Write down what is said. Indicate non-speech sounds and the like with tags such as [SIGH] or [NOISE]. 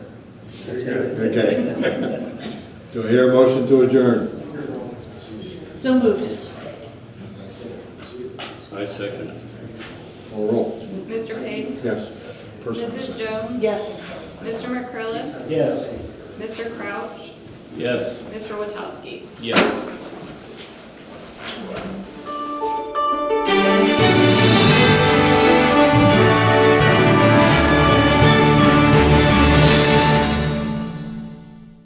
Okay. [LAUGHS] Do I hear a motion to adjourn? So moved. I second it. Call roll. Mr. Payne? Yes. Mrs. Jones? Yes. Mr. McCrillis? Yes. Mr. Crouch? Yes, Mr. Witowski? yes.